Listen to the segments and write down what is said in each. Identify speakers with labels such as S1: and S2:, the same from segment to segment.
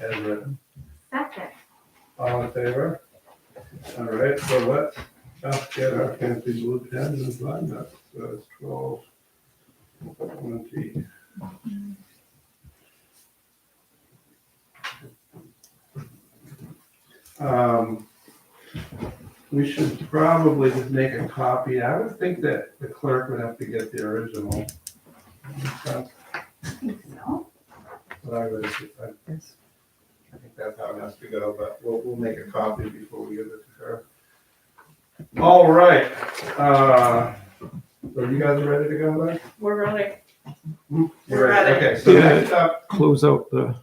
S1: as written.
S2: Second.
S1: All in favor? All right, so Oh, let's just get our Pantheon Blue pens and line up, so it's twelve twenty. Um, we should probably just make a copy, I would think that the clerk would have to get the original. That's
S2: I think so.
S1: what I would, I
S3: Yes.
S1: I think that's how it has to go, but we'll, we'll make a copy before we give it to her. All right, uh, are you guys ready to go then?
S4: We're really,
S1: You're
S4: Ready.
S1: Okay, so next up,
S3: Close out the,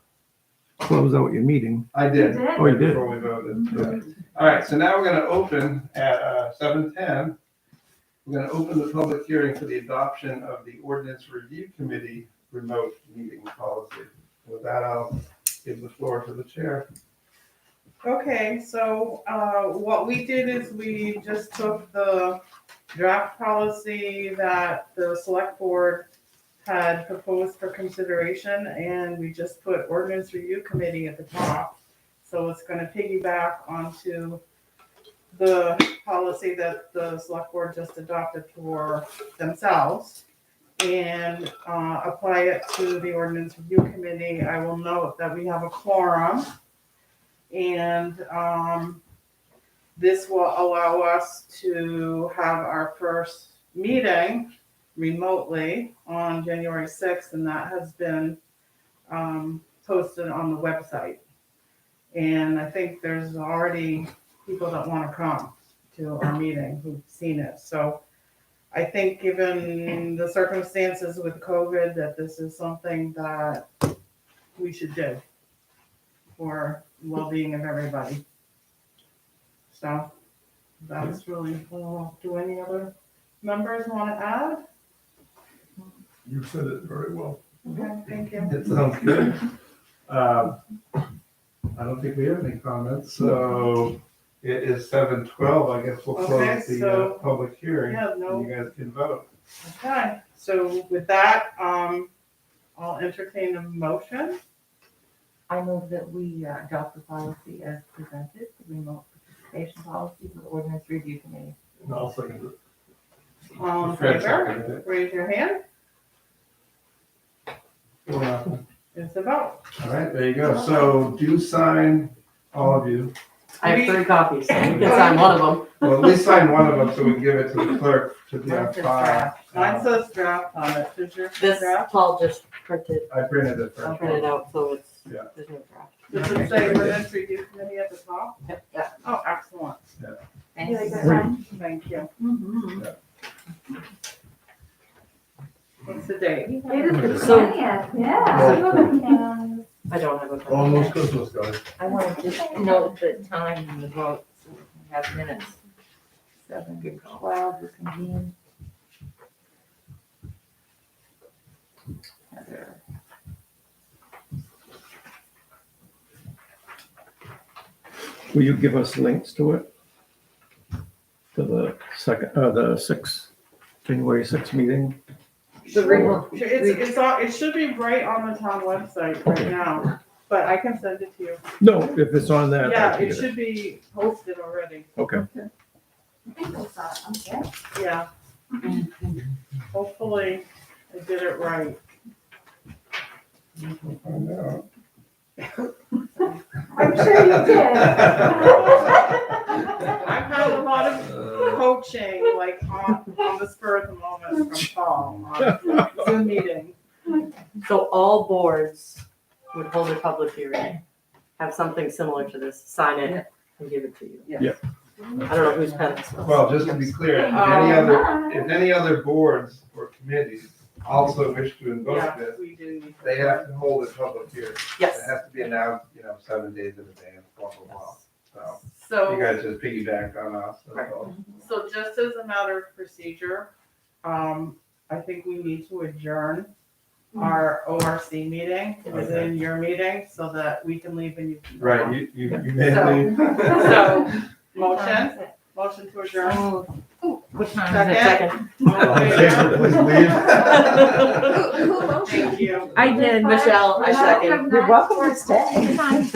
S3: close out your meeting.
S1: I
S2: You
S1: did.
S2: did?
S3: Oh, you did.
S1: Before we voted, yeah. All right, so now we're gonna open at, uh, seven ten. We're gonna open the public hearing for the adoption of the ordinance review committee remote meeting policy. With that, I'll give the floor to the chair.
S4: okay, so, uh, what we did is we just took the draft policy that the select board had proposed for consideration, and we just put ordinance review committee at the top. So it's gonna piggyback onto the policy that the select board just adopted for themselves. And, uh, apply it to the ordinance review committee. I will note that we have a quorum. And um, this will allow us to have our first meeting remotely on January 6th, and that has been um, posted on the website. And I think there's already people that want to come to our meeting who've seen it. So I think, given the circumstances with COVID, that this is something that we should do for well-being of everybody. So that's really cool. Do any other members want to add?
S1: You said it very well.
S4: Okay, thank you.
S1: It sounds good. Um, I don't think we have any comments, so it is seven twelve, I guess we'll
S4: Okay,
S1: close the uh,
S4: so-
S1: public hearing.
S4: Yeah,
S1: And
S4: no,
S1: you guys can vote.
S4: okay. So with that, um, I'll entertain a motion.
S5: I move that we uh, adopt the policy as presented, the remote participation policy for the ordinance review committee.
S1: And I'll second it.
S4: All in
S1: Fred
S4: favor?
S1: seconded it.
S4: Raise your hand.
S1: Four nothing.
S4: It's a vote.
S1: All right, there you go. So do sign, all of you.
S5: I have
S4: We-
S5: three copies, so you can sign one of them.
S1: Well, at least sign one of them so we can give it to the clerk to be on
S5: Mine says
S1: file. Uh,
S5: draft.
S4: Mine says draft on it. Does your
S5: This,
S4: draft?
S5: Paul just printed,
S1: I printed it. first.
S5: printed out, so it's,
S1: Yeah.
S5: there's no draft.
S4: Does it say ordinance review committee at the top?
S5: Yeah.
S4: Oh, excellent.
S2: You like that
S3: Thanks.
S2: one?
S4: Thank you.
S5: Mhm.
S4: What's the date?
S2: It is the
S5: So-
S2: twentieth, yeah.
S5: I don't have a. copy.
S1: Almost Christmas, guys.
S5: I want to just note the time and the vote, so we can have minutes. Seven, good twelve, we convene. Heather.
S3: Will you give us links to it? To the second, uh, the sixth, January sixth meeting?
S5: The remote.
S4: Sure, It's, it's on, it should be right on the town website right
S3: Okay.
S4: now, but I can send it to you.
S3: No, if it's on that. I
S4: Yeah,
S3: can
S4: it
S3: get
S4: should be posted already,
S3: Okay,
S2: I think I saw it, okay.
S4: yeah. Hopefully, I did it right.
S1: Find out.
S2: I'm sure you did.
S4: I've had a lot of coaching, like on, on the spur of the moment from Paul on Zoom meeting.
S5: So all boards would hold a public hearing, have something similar to this, sign it and give it to you.
S4: Yeah.
S3: Yeah.
S5: I don't know who's pen this was.
S1: Well, just to be clear, if
S2: Oh,
S1: any other If any other boards or committees also wish to
S4: Yeah,
S1: invoke this,
S4: we do. need to-
S1: they have to hold a public hearing.
S5: Yes.
S1: It has to be announced, you know, seven days in advance, blah, blah, blah. So you
S4: So,
S1: guys just piggybacked on us, that's all.
S4: so just as a matter of procedure, um, I think we need to adjourn our ORC meeting,
S1: Okay.
S4: within your meeting, so that we can leave and you can. go
S1: Right,
S4: home.
S1: you, you, you
S4: So-
S1: may leave.
S4: So, motion, Motion to adjourn.
S5: What time is it?
S4: Second.
S3: All in favor, please leave.
S1: Who, who motioned?
S4: Thank you.
S5: I did, Michelle, I
S2: second.
S5: You're welcome to stay.